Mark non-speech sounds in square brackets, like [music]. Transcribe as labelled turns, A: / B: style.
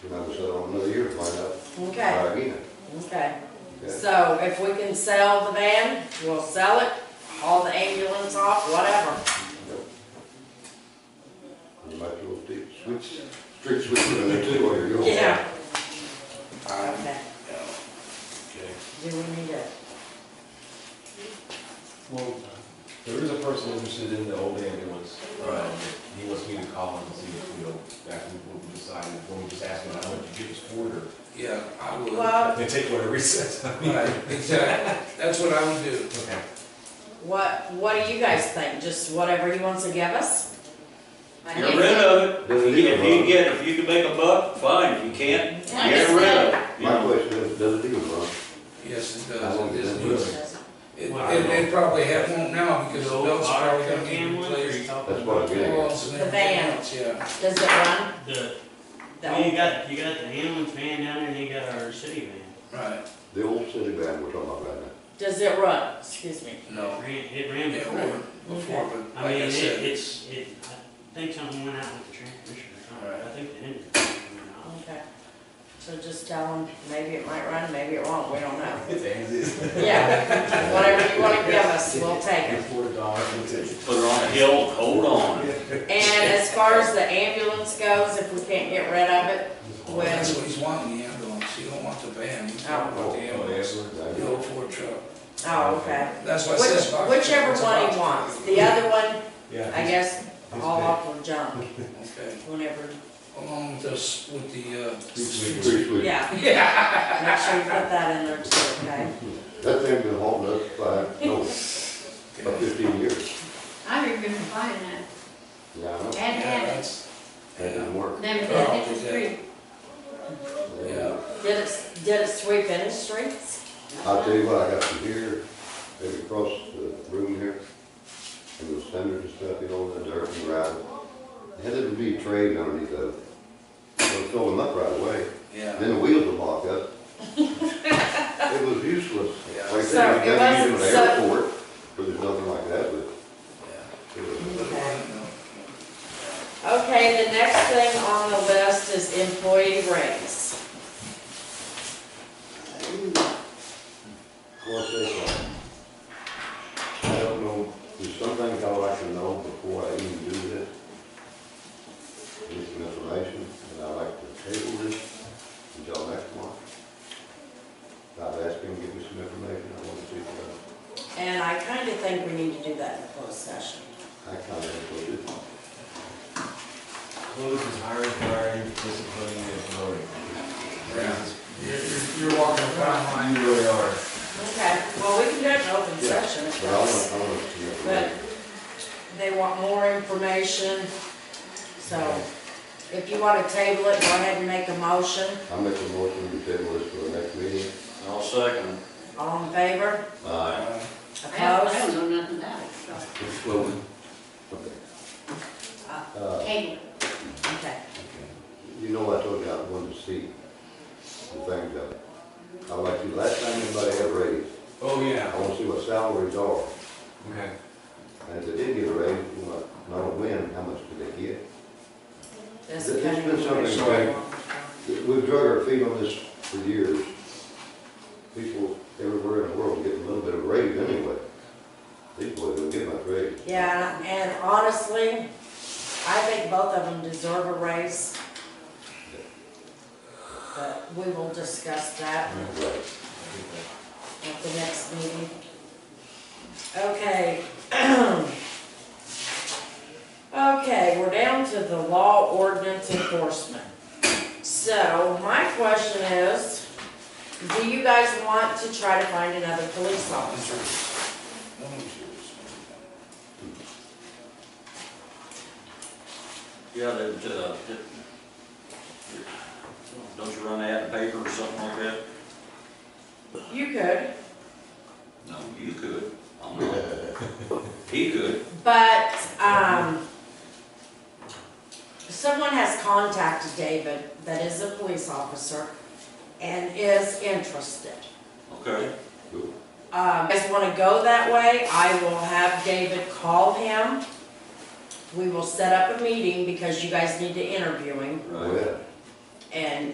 A: Okay,
B: uh, Nina.
A: okay.
B: Yeah.
A: So if we can sell the van, we'll sell it, haul the ambulance off, whatever.
B: You might as well do- switch, street switch to the two while you're going.
A: Yeah.
B: Um,
A: Okay,
C: Okay.
A: do we need it?
D: Well, there is a person interested in the old ambulance.
C: Right.
D: Um, He wants me to call him and see if, you know, after we decide, when we just ask him, I want you to get his order.
C: Yeah, I would.
A: Well,
D: Then take whatever he says. [laughs] I mean,
C: Right, exactly. That's what I would do.
D: Okay.
A: what, what do you guys think? Just whatever he wants to give us? I
E: Get
A: need-
E: rid of it.
B: Doesn't
E: If you-
B: need a
E: if you
B: run.
E: get, if you can make a buck, fine. If you can't,
F: I
E: get
F: just
E: rid of
F: said-
E: it. you
B: My
E: know.
B: question is, does it even run?
C: Yes, it
B: I
C: does.
B: won't
C: It is
B: do
C: doing-
B: it.
C: It, it they probably have one now because the belts are probably gonna be replaced.
B: That's what I'm getting at.
C: Belts and
A: The
C: everything
A: van.
C: else, Yeah.
A: Does it run?
G: The,
A: The
G: well, you
A: old-
G: got, you got the ambulance van down there, and you got our city van.
C: Right,
B: The old city van we're talking about right now.
A: Does it run? Excuse me.
C: no.
G: It ran, it ran
C: It
G: before.
C: worked before, but
G: I
C: like
G: mean,
C: I
G: it,
C: said,
G: it's, it, I think something went out with the transmission or something. I
C: Right.
G: think the engine went out.
A: Okay. So just tell him, maybe it might run, maybe it won't, we don't know.
D: It's as is.
A: Yeah, [laughs] whatever you wanna give us, we'll take it.
D: Get four dollars, we'll take it.
E: Put it on a hill, and hold on.
A: And as far as the ambulance goes, if we can't get rid of it, well,
C: that's what he's wanting, the ambulance. He don't want the van, he's talking about
B: Oh,
C: the ambulance.
B: yeah,
C: The old Ford truck.
A: oh, okay.
C: That's why I said. it's about-
A: Which, whichever
C: it's
A: one
C: about-
A: he wants, the other one,
D: Yeah.
A: I guess, all up or junk,
C: Okay,
A: whenever,
C: along with this, with the, uh.
B: Street sweep.
A: yeah,
C: [laughs] Yeah.
A: make sure you put that in there too, okay?
B: That thing been haunting us by, no, about
C: Okay.
B: fifteen years.
F: I remember buying that,
B: Yeah, I know.
F: had to
B: That
F: have it,
C: that's-
B: didn't work.
F: never did, it
C: Oh,
F: was
C: yeah.
F: free.
C: Yeah.
A: Did it, did it sweep any streets?
B: I'll tell you what, I got from here, maybe across the room here, and those cinders and stuff, you know, and the dirt and gravel. It had to be trade underneath those. They'll fill them up right away,
C: Yeah,
B: then the wheels will lock up.
A: [laughs]
B: It was useless.
C: Yeah.
B: Like I
A: So,
B: said,
A: it
B: you gotta use
A: wasn't
B: them at the airport, but there's nothing like that, but
C: yeah.
B: it was.
A: Okay, the next thing on the list is employee raise.
B: Well, it's like, I don't know, there's some things I would like to know before I even do this. Get some information, and I'd like to table this until next month. I've asked him to give me some information, I want to see what,
A: And I kinda think we need to do that in closed session.
B: I kind of included.
D: Close is hiring, firing, disciplining, and promoting.
C: Yeah. You're, you're walking a fine line.
D: You really are.
A: Okay, well, we can do it in open
B: Yeah,
A: session if
B: But I want,
A: that's.
B: I want some
A: But
B: information.
A: they want more information, so if you want to table it, go ahead and make a motion.
B: I make a motion to table this for the next meeting.
E: I'll second.
A: All in favor?
B: Aye.
F: I don't, I
A: Opposed?
F: don't know nothing about it, so,
B: It's flowing. Okay. Uh,
F: cable.
A: Okay.
B: You know, I told you I wanted to see the things up. I like you, last time anybody had a raise,
D: Oh,
B: I
D: yeah.
B: wanna see what salaries are.
D: Okay.
B: And if they did get a raise, you know, not a win, how much did they get?
A: This
B: This-
A: is
B: this
A: kind of
B: been something
A: information.
B: We've drug our feet on this for years. People everywhere in the world get a little bit of raise anyway. These boys don't get much raise.
A: Yeah, and honestly, I think both of them deserve a raise. But we will discuss that
B: Right.
A: at the next meeting. Okay. [clears throat] Okay, we're down to the law ordinance enforcement. So my question is, do you guys want to try to find another police officer?
E: Yeah, they, uh, did- don't you run ad in the paper or something like that?
A: You could,
E: No, you could. I'm not.
B: [laughs]
E: He could.
A: but, um, someone has contacted David that is a police officer and is interested.
E: Okay.
A: Um, if you guys wanna go that way, I will have David call him. We will set up a meeting because you guys need to interview him
E: Right.
B: Well,
A: and